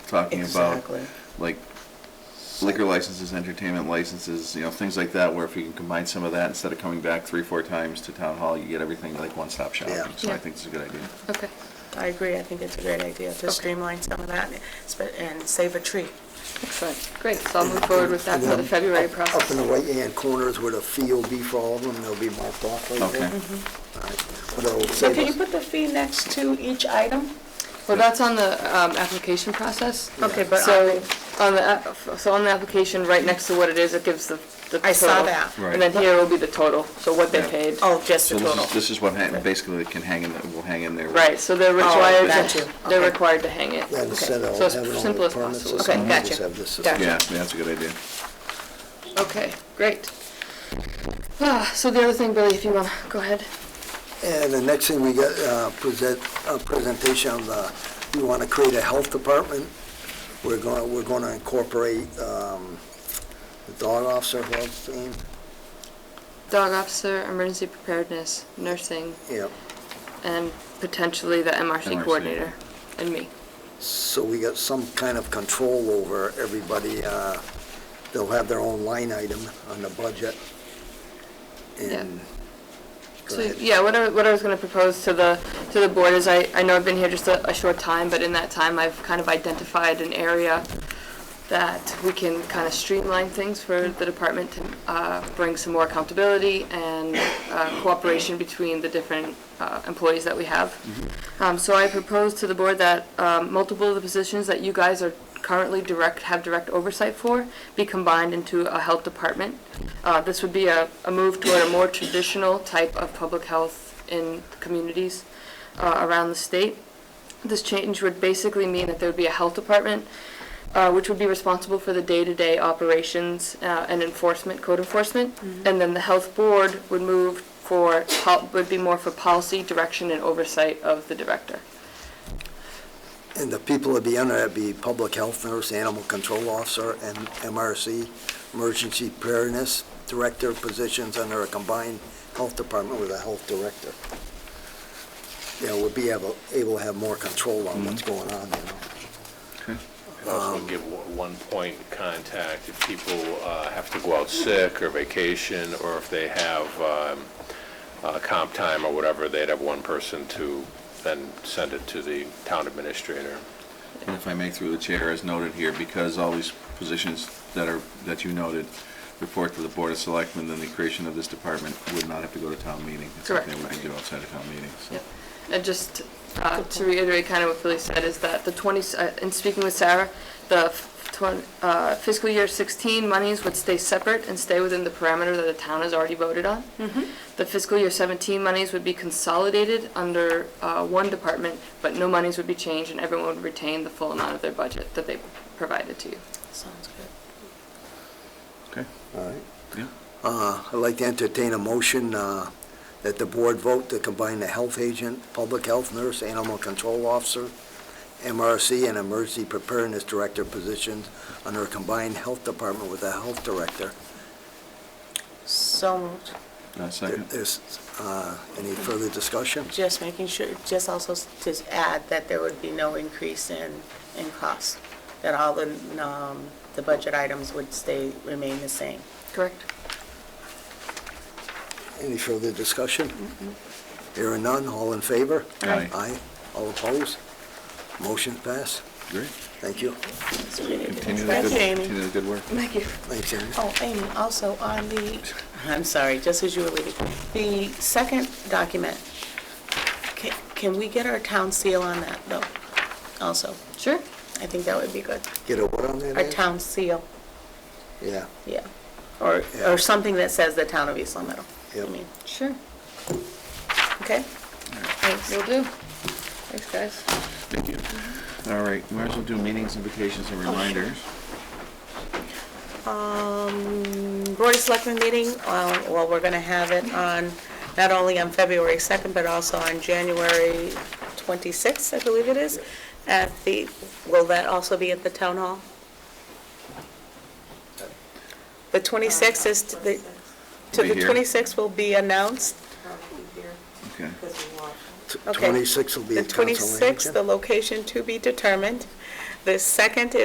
talking about Exactly. like liquor licenses, entertainment licenses, you know, things like that, where if you can combine some of that, instead of coming back three, four times to town hall, you get everything like one-stop Yeah. shopping. So I Yeah. think it's a good idea. Okay. I agree, I think it's a great idea to Okay. streamline some of that and sp- and save a tree. Excellent. Great. So I'll move forward with that for the And then February up- Up in the process. right-hand corners where the fee will be for all of them, they'll be marked off like Okay. that. Mm-hmm. But it'll So save can you us, put the fee next to each item? Well, that's on the um, application process. Okay, but So on the, app- so on the application, right next to what it is, it gives the the total. I saw that. Right. And then here will be the total, so what they Yeah. paid. Oh, just the So this total. is, this is what hang, basically can hang in, will hang in there. Right, so they're Oh, required, got you. to- they're Okay. required to hang it. then instead of So as having all simple the as permits. and possible. Okay, stuff, gotcha. just have this Gotcha. system. Yeah, yeah, that's a good idea. Okay, great. Ah, So the other thing, Billy, if you want to, go ahead. And the next thing we got, uh, present, a presentation of, uh, we want to create a health department. We're gonna, we're gonna incorporate, um, the dog officer, what's his name? Dog officer, emergency preparedness, nursing, Yeah. and potentially the MRC MRC. coordinator, and me. So we got some kind of control over everybody. uh, They'll have their own line item on the budget. And, go So, ahead. yeah, what I, what I was gonna propose to the, to the board is I, I know I've been here just a, a short time, but in that time, I've kind of identified an area that we can kind of streamline things for the department to, uh, bring some more accountability and, uh, cooperation between the different, uh, employees that we have. Um, so I propose to the board that, um, multiple of the positions that you guys are currently direct, have direct oversight for, be combined into a health department. Uh, This would be a, a move toward a more traditional type of public health in communities uh, around the state. This change would basically mean that there would be a health department, uh, which would be responsible for the day-to-day operations uh, and enforcement, code enforcement. And then the health board would move for, pol- would be more for policy, direction, and oversight of the director. and the people that be under that be public health nurse, animal control officer, and MRC, emergency preparedness director positions under a combined health department with a health director. You know, we'll be able, able to have more control on what's going on, you know. And also give one point contact if people uh, have to go out sick or vacation, or if they have um, uh, comp time or whatever, they'd have one person to then send it to the town administrator. And if I make through the chair, as noted here, because all these positions that are, that you noted, report to the Board of Selectmen, then the creation of this department would not have to go to town meeting. It's something we Correct. can do outside of town meeting, so. Yep. And just uh, to reiterate kind of what Billy said, is that the 20, s- uh, in speaking with Sarah, the f- twen- uh, fiscal year 16 monies would stay separate and stay within the parameter that the town has already voted on. The fiscal year 17 monies would be consolidated under uh, one department, but no monies would be changed, and everyone would retain the full amount of their budget that they provided to you. Sounds good. Okay, All right. yeah. Uh, I'd like to entertain a motion uh, that the board vote to combine the health agent, public health nurse, animal control officer, MRC, and emergency preparedness director positions under a combined health department with a health director. So moved. Uh, There- Second? There's, uh, any further discussion? Just making sure, just also s- to add that there would be no increase in, in cost, that all the, um, the budget items would stay, remain the same. Correct? Any further discussion? There are none, all in favor? Aye. Aye, all opposed? Motion passed. Great. Thank you. That's a great idea. Continue the Thank good, you, Amy. continue the good work. Thank you. Thanks, Amy. Oh, Amy, also on the, I'm sorry, just as you were leaving, the second document, ca- can we get our town seal on that, though, also? Sure. I think that would be good. Get a word on that? Our Ed? town seal, Yeah, yeah. Or, Yeah. or something that says the town of East Long Meadow. I Yep. mean, Sure. okay? Thanks. Will do. Thanks, guys. Thank you. All right, might as well do meetings, invitations, and reminders. Um, Board of Selectmen meeting, uh, well, we're going to have it on, not only on February 2nd, but also on January 26th, I believe it is, at the, will that also be at the town hall? The 26th is, to the to Be the here. 26th will be announced. Okay. T- Okay. 26 will be The a council 26th, the action. location to be determined. The second